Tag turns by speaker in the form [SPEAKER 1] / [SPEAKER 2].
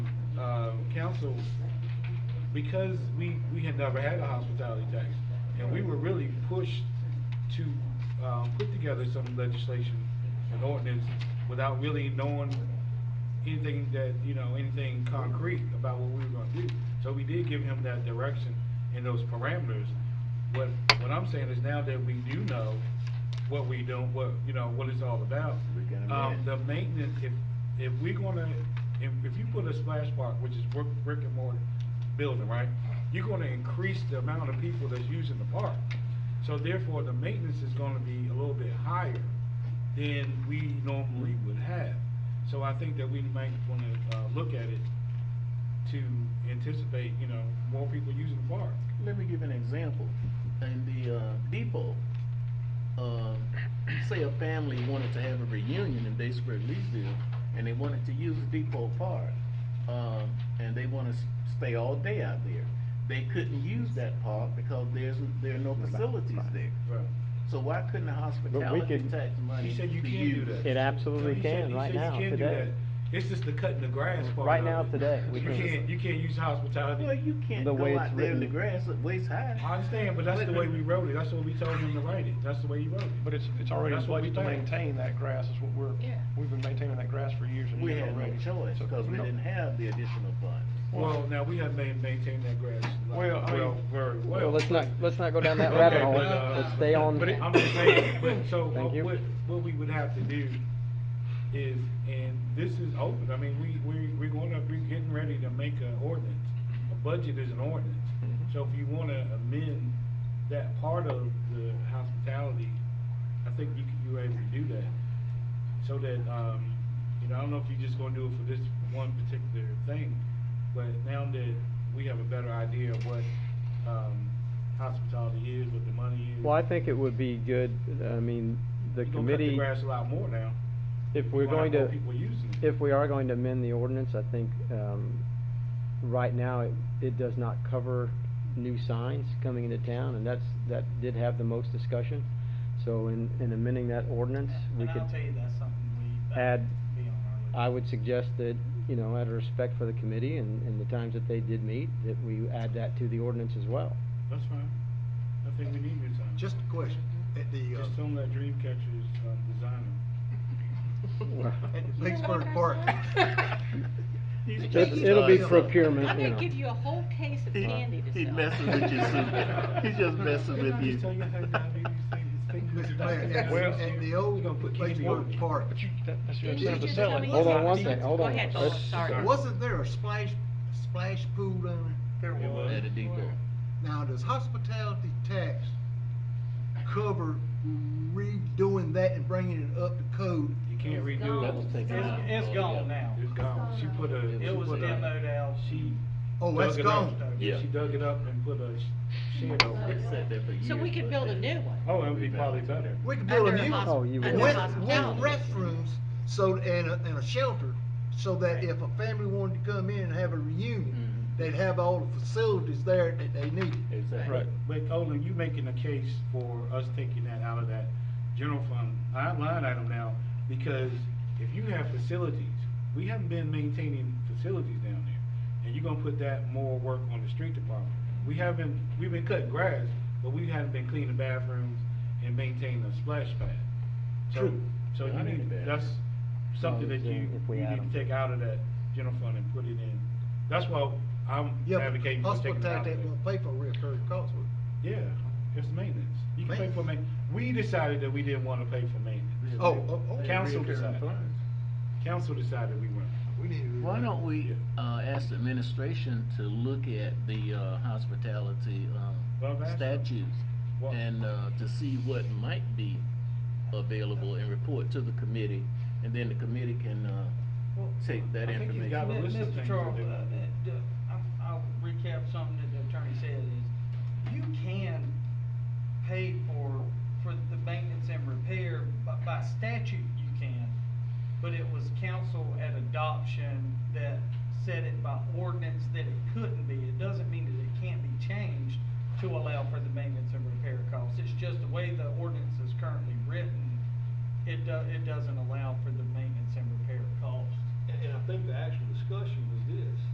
[SPEAKER 1] council, um, because we, we had never had a hospitality tax, and we were really pushed to, um, put together some legislation and ordinance without really knowing anything that, you know, anything concrete about what we were gonna do. So we did give him that direction and those parameters. What, what I'm saying is now that we do know what we don't, what, you know, what it's all about.
[SPEAKER 2] We got a
[SPEAKER 1] Um,
[SPEAKER 2] man.
[SPEAKER 1] the maintenance, if, if we're gonna, if, if you put a splash park, which is brick, brick and mortar building, right? You're gonna increase the amount of people that's using the park. So therefore, the maintenance is gonna be a little bit higher than we normally would have. So I think that we might wanna, uh, look at it to anticipate, you know, more people using the park.
[SPEAKER 2] Let me give an example. In the uh, depot, uh, say a family wanted to have a reunion in Batesburg, Leesville, and they wanted to use Depot Park, um, and they want to stay all day out there. They couldn't use that park because there's there are no facilities there.
[SPEAKER 1] Right.
[SPEAKER 2] So why couldn't the hospitality
[SPEAKER 3] can-
[SPEAKER 2] tax money
[SPEAKER 1] He said you
[SPEAKER 2] be
[SPEAKER 1] can do
[SPEAKER 2] used?
[SPEAKER 1] that.
[SPEAKER 3] It absolutely
[SPEAKER 1] He said-
[SPEAKER 3] can
[SPEAKER 1] he
[SPEAKER 3] right
[SPEAKER 1] said you
[SPEAKER 3] now,
[SPEAKER 1] can do
[SPEAKER 3] today.
[SPEAKER 1] that. It's just the cutting the grass part.
[SPEAKER 3] Right
[SPEAKER 1] of
[SPEAKER 3] now,
[SPEAKER 1] it.
[SPEAKER 3] today, we
[SPEAKER 1] You
[SPEAKER 3] can.
[SPEAKER 1] can't, you can't use hospitality.
[SPEAKER 2] Well, you can't
[SPEAKER 3] The
[SPEAKER 2] go
[SPEAKER 3] way
[SPEAKER 2] out
[SPEAKER 3] it's
[SPEAKER 2] there in the
[SPEAKER 3] written.
[SPEAKER 2] grass at waist high.
[SPEAKER 1] I understand, but that's the way we wrote it, that's what we told him to write it, that's the way he wrote it.
[SPEAKER 4] But it's, it's already in
[SPEAKER 1] Oh, That's what
[SPEAKER 4] place to
[SPEAKER 1] we think.
[SPEAKER 4] maintain that grass, is what we're,
[SPEAKER 5] Yeah.
[SPEAKER 4] we've been maintaining that grass for years and
[SPEAKER 2] We
[SPEAKER 4] years
[SPEAKER 2] had no
[SPEAKER 4] already.
[SPEAKER 2] choice
[SPEAKER 4] So-
[SPEAKER 2] because we
[SPEAKER 4] no.
[SPEAKER 2] didn't have the additional funds.
[SPEAKER 1] Well, now, we have ma- maintained that grass. like,
[SPEAKER 4] Well, I mean-
[SPEAKER 1] Very well.
[SPEAKER 3] Well, let's not, let's not go down that
[SPEAKER 1] Okay,
[SPEAKER 3] rabbit hole,
[SPEAKER 1] but, uh,
[SPEAKER 3] let's stay on.
[SPEAKER 4] but it-
[SPEAKER 1] I'm just saying, but so,
[SPEAKER 3] Thank
[SPEAKER 1] what,
[SPEAKER 3] you.
[SPEAKER 1] what- what we would have to do is, and this is open, I mean, we, we, we're gonna, be getting ready to make an ordinance. A budget is an ordinance,
[SPEAKER 3] Mm-hmm.
[SPEAKER 1] so if you wanna amend that part of the hospitality, I think you can, you're able to do that. So that, um, you know, I don't know if you're just gonna do it for this one particular thing, but now that we have a better idea of what, um, hospitality is, what the money is.
[SPEAKER 3] Well, I think it would be good, I mean, the
[SPEAKER 1] You're gonna cut the
[SPEAKER 3] committee,
[SPEAKER 1] grass a lot more now.
[SPEAKER 3] if we're
[SPEAKER 1] You're gonna
[SPEAKER 3] going
[SPEAKER 1] have
[SPEAKER 3] to,
[SPEAKER 1] more people using it.
[SPEAKER 3] if we are going to amend the ordinance, I think, um, right now, it, it does not cover new signs coming into town, and that's, that did have the most discussion. So in, in amending that ordinance, we
[SPEAKER 6] And
[SPEAKER 3] could.
[SPEAKER 6] I'll tell you that's something we. that
[SPEAKER 3] add-
[SPEAKER 6] would be on our list.
[SPEAKER 3] I would suggest that, you know, out of respect for the committee and, and the times that they did meet, that we add that to the ordinance as well.
[SPEAKER 1] That's fine. I think we need new signs.
[SPEAKER 7] Just a question, at the,
[SPEAKER 1] Just
[SPEAKER 7] uh,
[SPEAKER 1] don't let dream catchers, um, design them.
[SPEAKER 7] at the Blacksburg Park,
[SPEAKER 2] He's
[SPEAKER 3] It-
[SPEAKER 2] just-
[SPEAKER 3] It'll be
[SPEAKER 2] uh,
[SPEAKER 3] procurement,
[SPEAKER 5] I'm
[SPEAKER 3] you
[SPEAKER 5] gonna give
[SPEAKER 3] know.
[SPEAKER 5] you a whole case of
[SPEAKER 2] He-
[SPEAKER 5] candy to sell.
[SPEAKER 2] he messes with you, Sue. He's just messing with you.
[SPEAKER 7] Mr. Mayor, at,
[SPEAKER 4] Well-
[SPEAKER 7] at the old Blacksburg Park,
[SPEAKER 4] But you, that- that's your
[SPEAKER 5] Did
[SPEAKER 4] incentive to
[SPEAKER 5] you just
[SPEAKER 4] sell
[SPEAKER 5] tell
[SPEAKER 4] it.
[SPEAKER 5] me
[SPEAKER 3] Hold
[SPEAKER 5] you
[SPEAKER 3] on
[SPEAKER 5] got
[SPEAKER 3] one
[SPEAKER 5] these?
[SPEAKER 3] second, hold
[SPEAKER 5] Go
[SPEAKER 3] on.
[SPEAKER 2] Oh,
[SPEAKER 5] ahead,
[SPEAKER 3] Let's-
[SPEAKER 5] Paul, sorry.
[SPEAKER 7] wasn't there a splash, splash pool down there?
[SPEAKER 4] There
[SPEAKER 1] It
[SPEAKER 4] was.
[SPEAKER 1] was.
[SPEAKER 2] At a depot.
[SPEAKER 7] Now, does hospitality tax cover redoing that and bringing it up to code?
[SPEAKER 1] You can't redo
[SPEAKER 2] That was
[SPEAKER 1] it.
[SPEAKER 2] taken out.
[SPEAKER 6] It's, it's gone now.
[SPEAKER 1] It's gone. She put a.
[SPEAKER 2] It
[SPEAKER 1] she
[SPEAKER 6] was
[SPEAKER 1] put a-
[SPEAKER 6] demoed out.
[SPEAKER 1] She.
[SPEAKER 7] Oh,
[SPEAKER 1] dug
[SPEAKER 7] that's
[SPEAKER 1] it up.
[SPEAKER 7] gone.
[SPEAKER 2] Yeah.
[SPEAKER 1] She dug it up and put a sh- shed over
[SPEAKER 2] It
[SPEAKER 1] it.
[SPEAKER 2] sat there for
[SPEAKER 5] So we
[SPEAKER 2] years,
[SPEAKER 5] could
[SPEAKER 2] but
[SPEAKER 5] build a
[SPEAKER 2] then-
[SPEAKER 5] new one.
[SPEAKER 1] Oh, it'd be probably better.
[SPEAKER 7] We could build a
[SPEAKER 5] Under
[SPEAKER 7] new one.
[SPEAKER 5] hosp-
[SPEAKER 3] Oh, you would.
[SPEAKER 5] under
[SPEAKER 7] With, with
[SPEAKER 5] hospitality.
[SPEAKER 7] restrooms, so, and a, and a shelter, so that if a family wanted to come in and have a reunion,
[SPEAKER 1] Mm-hmm.
[SPEAKER 2] Mhm.
[SPEAKER 7] they'd have all the facilities there that they needed.
[SPEAKER 2] Exactly.
[SPEAKER 1] Right, but Olin, you making a case for us taking that out of that general fund line line item now, because if you have facilities, we haven't been maintaining facilities down there, and you're gonna put that more work on the street department. We haven't, we've been cutting grass, but we haven't been cleaning bathrooms and maintaining a splash pad. So,
[SPEAKER 2] True.
[SPEAKER 1] so
[SPEAKER 2] Yeah,
[SPEAKER 1] you
[SPEAKER 2] I need
[SPEAKER 1] need,
[SPEAKER 2] a bathroom.
[SPEAKER 1] that's something
[SPEAKER 3] Well,
[SPEAKER 1] that you,
[SPEAKER 3] if we
[SPEAKER 1] you
[SPEAKER 3] add
[SPEAKER 1] need to
[SPEAKER 3] 'em.
[SPEAKER 1] take out of that general fund and put it in. That's why I'm
[SPEAKER 7] Yeah, but
[SPEAKER 1] advocating for taking it out of
[SPEAKER 7] Hospitality
[SPEAKER 1] there.
[SPEAKER 7] won't pay for reoccurring costs. will it?
[SPEAKER 1] Yeah, it's maintenance. You can pay for maintenance. We decided that we didn't wanna pay for maintenance.
[SPEAKER 7] Oh, oh, oh.
[SPEAKER 1] Council decided. Council decided we weren't.
[SPEAKER 7] We need to.
[SPEAKER 2] Why don't we, uh, ask the administration to look at the, uh, hospitality,
[SPEAKER 1] Well,
[SPEAKER 2] um,
[SPEAKER 1] that's-
[SPEAKER 2] statutes?
[SPEAKER 1] Well-
[SPEAKER 2] And, uh, to see what might be available and report to the committee, and then the committee can, uh,
[SPEAKER 6] Well,
[SPEAKER 2] take that
[SPEAKER 1] I think you
[SPEAKER 2] information.
[SPEAKER 1] got a
[SPEAKER 6] Mi-
[SPEAKER 1] list of
[SPEAKER 6] Mr.
[SPEAKER 1] things
[SPEAKER 6] Charles,
[SPEAKER 1] that they-
[SPEAKER 6] uh, uh, d- I'm- I'll recap something that the attorney said is, you can pay for, for the maintenance and repair, by, by statute you can, but it was council at adoption that said it by ordinance that it couldn't be. It doesn't mean that it can't be changed to allow for the maintenance and repair costs. It's just the way the ordinance is currently written, it do, it doesn't allow for the maintenance and repair costs.
[SPEAKER 8] And, and I think the actual discussion was this,